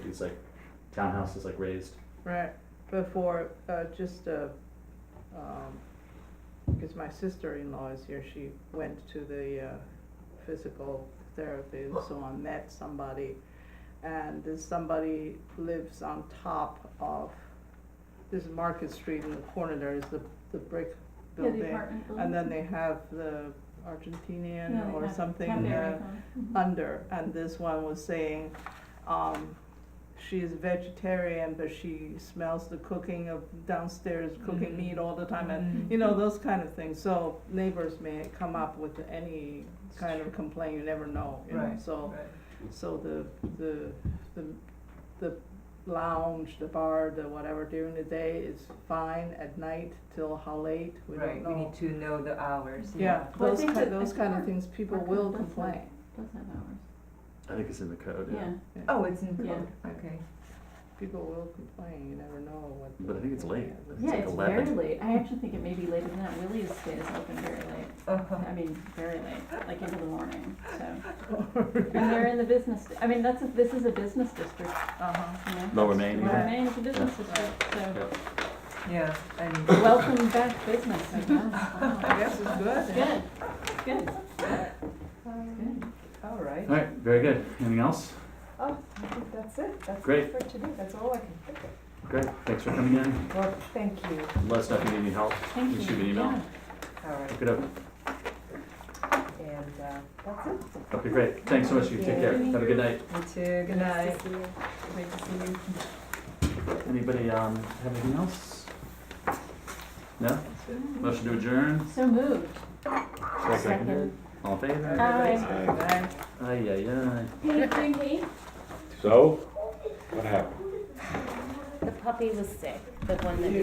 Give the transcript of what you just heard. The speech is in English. these like townhouses like raised. Right, before, uh, just, uh, um, because my sister-in-law is here, she went to the, uh, physical therapy and so on, met somebody. And this somebody lives on top of, this is Market Street in the corner there is the, the brick Yeah, building. the apartment building. And then they have the Argentinian No, or not- something, not uh, very common. Mhm. under, and this one was saying, um, she is vegetarian, but she smells the cooking of downstairs cooking Mhm. meat all the time, and Mm-hmm. you know those kind of things. So neighbors may come up with any kind of complaint. You never know. You Know? Right. So Right. so the the the the lounge, the bar, the whatever during the day is fine. At night till how late we Right, don't we know. need to know the hours, yeah, yeah. Well, I those think kind, that- I those think kind of our- things people our will code does have- complain. Does have hours, I think it's in the code. Yeah. yeah. Oh, it's in Yeah. code, okay. People will complain, you never know what. But I think it's late. It's Yeah, like it's 11. very late. I actually think it may be later than that. Willie's stays open very late. I mean, very late, like into the morning, so. And they're in the business, di- I mean, that's, a- this is a business district, Uh-huh. you know. Lower Main, Lower yeah. Main is a business district, so Yeah, and, welcome back business, I guess. Wow. I guess it's good. Good, good, good. all right. All right. Very good. Anything else? Oh, I think that's it. That's Great. it for today. That's all I can think of. Great. Thanks for coming in. Well, thank you. Let us know if you need any help. Thank You you. should be emailed. Yeah. All right. Look it up. And uh, that's it. Okay. Great. Thanks so much. You take care. Have a good night. You too, good night. Nice to see you. Great to see you. Anybody um, have anything else? No. Motion to adjourn. So moved. Seconded. All in favor? Aye. Bye. Aye. Aye. Aye. Hey, Pinky. So, what happened? The puppy was sick, the one that